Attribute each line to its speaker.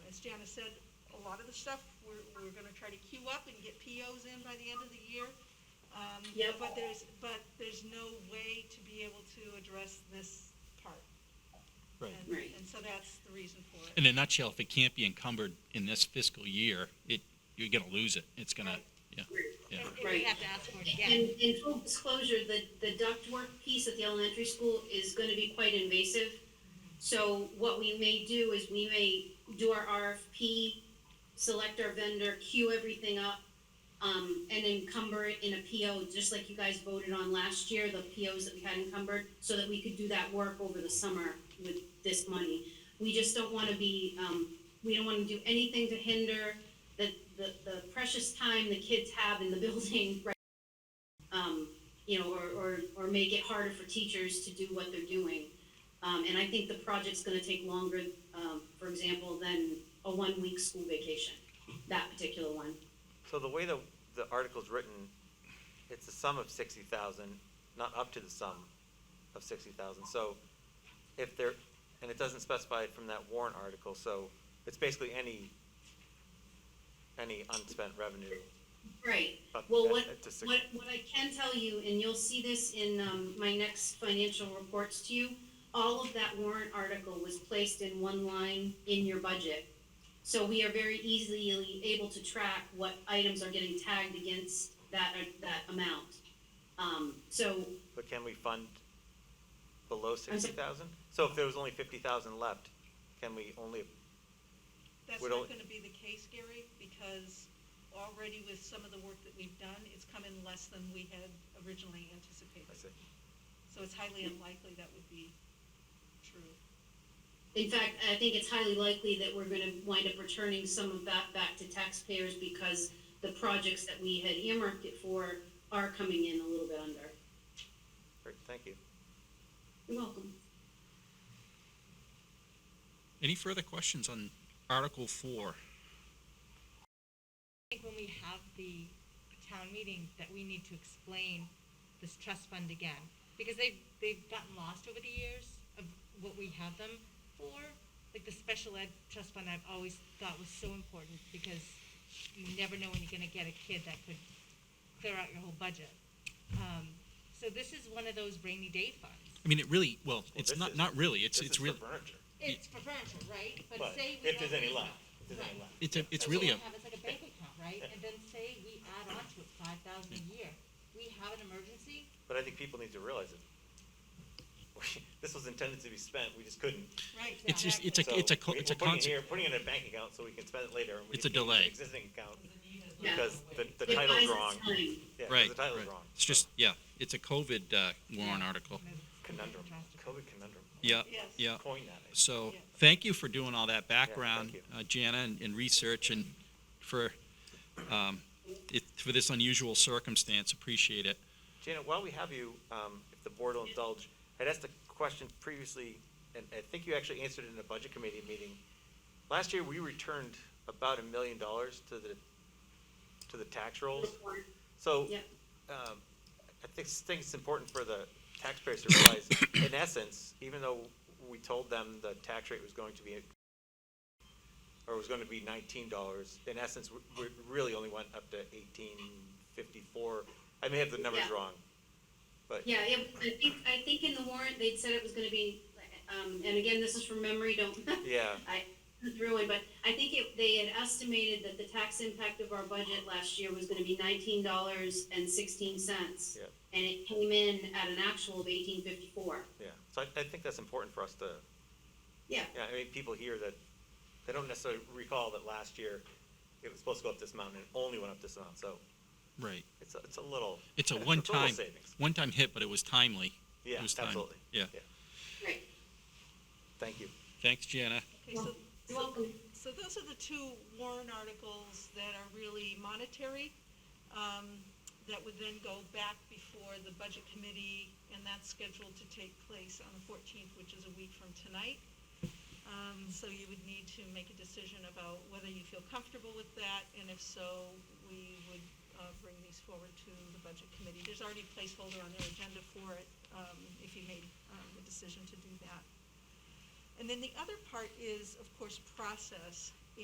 Speaker 1: Janice said, a lot of the stuff, we're, we're gonna try to queue up and get POs in by the end of the year. Um,
Speaker 2: Yep.
Speaker 1: But there's, but there's no way to be able to address this part.
Speaker 3: Right.
Speaker 1: And-
Speaker 2: Right.
Speaker 1: And so that's the reason for it.
Speaker 3: In a nutshell, if it can't be encumbered in this fiscal year, it, you're gonna lose it. It's gonna, yeah, yeah.
Speaker 1: And and we
Speaker 2: Right.
Speaker 1: have to ask for it again.
Speaker 2: And, and full disclosure, the, the ductwork piece at the elementary school is gonna be quite invasive. So what we may do is we may do our RFP, select our vendor, queue everything up, um, and encumber it in a PO, just like you guys voted on last year, the POs that we had encumbered, so that we could do that work over the summer with this money. We just don't wanna be, um, we don't wanna do anything to hinder the, the, the precious time the kids have in the building right um, you know, or, or, or make it harder for teachers to do what they're doing. Um, and I think the project's gonna take longer, um, for example, than a one-week school vacation, that particular one.
Speaker 4: So the way the, the article's written, it's the sum of sixty thousand, not up to the sum of sixty thousand, so if there, and it doesn't specify it from that warrant article, so it's basically any, any unspent revenue.
Speaker 2: Right,
Speaker 4: Up
Speaker 2: well,
Speaker 4: at-
Speaker 2: what,
Speaker 4: at the six-
Speaker 2: what, what I can tell you, and you'll see this in, um, my next financial reports to you, all of that warrant article was placed in one line in your budget. So we are very easily able to track what items are getting tagged against that, uh, that amount. Um, so,
Speaker 4: But can we fund below
Speaker 2: sorry.
Speaker 4: sixty thousand? So if there was only fifty thousand left, can we only,
Speaker 1: That's
Speaker 4: We're
Speaker 1: not
Speaker 4: only-
Speaker 1: gonna be the case, Gary, because already with some of the work that we've done, it's come in less than we had originally
Speaker 4: I
Speaker 1: anticipated.
Speaker 4: see,
Speaker 1: So it's highly unlikely that would be true.
Speaker 2: in fact, I think it's highly likely that we're gonna wind up returning some of that back to taxpayers because the projects that we had earmarked it for are coming in a little bit under.
Speaker 4: great, thank you.
Speaker 2: You're welcome.
Speaker 3: Any further questions on Article Four?
Speaker 5: I think when we have the town meeting, that we need to explain this trust fund again, because they've, they've gotten lost over the years of what we have them for. Like the special ed trust fund, I've always thought was so important, because you never know when you're gonna get a kid that could clear out your whole budget. Um, so this is one of those rainy day funds.
Speaker 3: I mean, it really, well, it's
Speaker 4: this
Speaker 3: not,
Speaker 4: is-
Speaker 3: not really, it's, it's
Speaker 4: This is for
Speaker 3: really,
Speaker 4: furniture.
Speaker 5: It's for furniture, right?
Speaker 4: But
Speaker 5: say we
Speaker 4: if there's
Speaker 5: don't
Speaker 4: any
Speaker 5: use
Speaker 4: left,
Speaker 5: it.
Speaker 4: if there's any
Speaker 5: Right.
Speaker 4: left.
Speaker 3: it's a, it's
Speaker 5: So
Speaker 3: really a,
Speaker 5: we have, it's like a bank account, right? And then say we add on to it five thousand a year. We have an emergency,
Speaker 4: But I think people need to realize it. This was intended to be spent, we just couldn't.
Speaker 1: Right.
Speaker 3: it's just, it's
Speaker 4: So
Speaker 3: a, it's a, co-
Speaker 4: we-
Speaker 3: it's a
Speaker 4: we're putting it
Speaker 3: concept.
Speaker 4: here, Putting it in a bank account so we can spend it later. and we
Speaker 3: It's a
Speaker 4: just keep it in the
Speaker 3: delay.
Speaker 4: Existing account,
Speaker 2: Yeah.
Speaker 4: because the, the
Speaker 2: It buys
Speaker 4: title's
Speaker 2: us
Speaker 4: wrong.
Speaker 2: time.
Speaker 4: Yeah, 'cause
Speaker 3: Right,
Speaker 4: the title's
Speaker 3: right.
Speaker 4: wrong.
Speaker 3: It's just, yeah, it's a COVID, uh, warrant article.
Speaker 4: Conundrum, COVID conundrum.
Speaker 3: Yeah,
Speaker 1: Yes.
Speaker 3: yeah.
Speaker 4: Coin that. I think.
Speaker 3: So,
Speaker 1: Yeah.
Speaker 3: thank you for doing all that background,
Speaker 4: thank you.
Speaker 3: uh, Jana, and, and research and for, um, it, for this unusual circumstance. Appreciate it.
Speaker 4: Janet, while we have you, um, if the board will indulge, I'd asked a question previously, and I think you actually answered it in a budget committee meeting. Last year, we returned about a million dollars to the, to the tax rolls. So,
Speaker 2: Yeah.
Speaker 4: um, I think, think it's important for the taxpayers to realize, in essence, even though we told them the tax rate was going to be, or was gonna be nineteen dollars, in essence, we, we really only went up to eighteen fifty-four. I may have the numbers
Speaker 2: Yeah.
Speaker 4: wrong, but,
Speaker 2: Yeah, it, I think, I think in the warrant, they'd said it was gonna be, um, and again, this is from memory, don't,
Speaker 4: yeah,
Speaker 2: I, ruined, but I think it, they had estimated that the tax impact of our budget last year was gonna be nineteen dollars and sixteen cents.
Speaker 4: Yep.
Speaker 2: And it came in at an actual of eighteen fifty-four.
Speaker 4: yeah. So I, I think that's important for us to,
Speaker 2: Yeah,
Speaker 4: yeah, I mean, people hear that, they don't necessarily recall that last year it was supposed to go up this amount and it only went up this amount, so
Speaker 3: Right.
Speaker 4: it's, a- it's a little.
Speaker 3: It's a
Speaker 4: little
Speaker 3: one-time,
Speaker 4: savings.
Speaker 3: one-time hit, but it was timely.
Speaker 4: Yeah,
Speaker 3: It was timely.
Speaker 4: absolutely.
Speaker 3: Yeah.
Speaker 2: right.
Speaker 4: Thank you.
Speaker 3: Thanks, Jana.
Speaker 1: Okay, so,
Speaker 2: You're welcome.
Speaker 1: so those are the two warrant articles that are really monetary, um, that would then go back before the budget committee, and that's scheduled to take place on the fourteenth, which is a week from tonight. Um, so you would need to make a decision about whether you feel comfortable with that, and if so, we would, uh, bring these forward to the budget committee. There's already a placeholder on their agenda for it, um, if you made, um, the decision to do that. And then the other part is, of course, process.